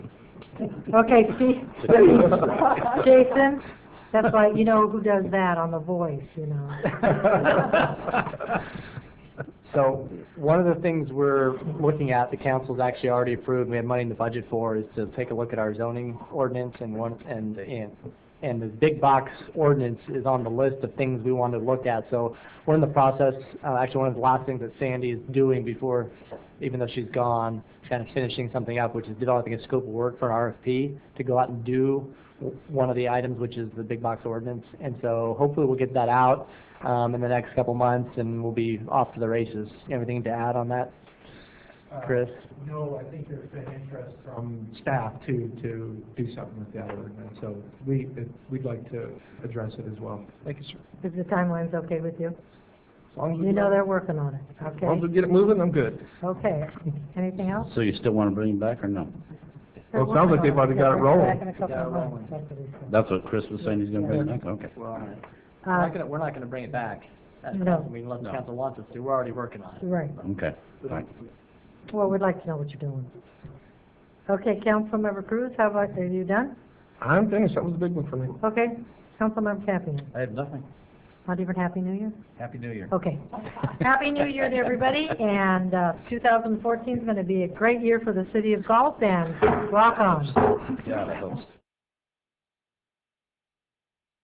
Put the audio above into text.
Okay, see, Jason, that's why, you know who does that on The Voice, you know? So, one of the things we're looking at, the council's actually already approved, we have money in the budget for, is to take a look at our zoning ordinance and one, and, and, and the big box ordinance is on the list of things we want to look at, so we're in the process, uh, actually, one of the last things that Sandy is doing before, even though she's gone, kind of finishing something up, which is developing a scope of work for an RFP to go out and do w- one of the items, which is the big box ordinance, and so hopefully we'll get that out, um, in the next couple months, and we'll be off to the races. Anything to add on that, Chris? Uh, No, I think there's been interest from staff to, to do something with that ordinance, so we, we'd like to address it as well. Thank you, sir. Is the timeline's okay with you? As long as we- You know they're working on it, As long as we okay? get it moving, I'm good. Okay, anything else? So you still want to bring him back or no? Well, it sounds like they've already got it rolling. Back in a couple of months, that's what he said. That's what Chris was saying, he's going to bring him back, okay. We're Uh, not gonna, we're not gonna bring it back. at No. council meeting unless No. council wants us to, we're already working on it. Uh, Right, Okay, fine. well, we'd like to know what you're doing. Okay, Councilmember Cruz, how about, are you done? I'm finished, that was a big one for me. Okay, Councilmember Campion, I have nothing. not even Happy New Year? Happy New Year. Okay. Happy New Year to everybody, and uh, 2014 is going to be a great year for the city of Gulf, and rock on. Yeah, I hope so.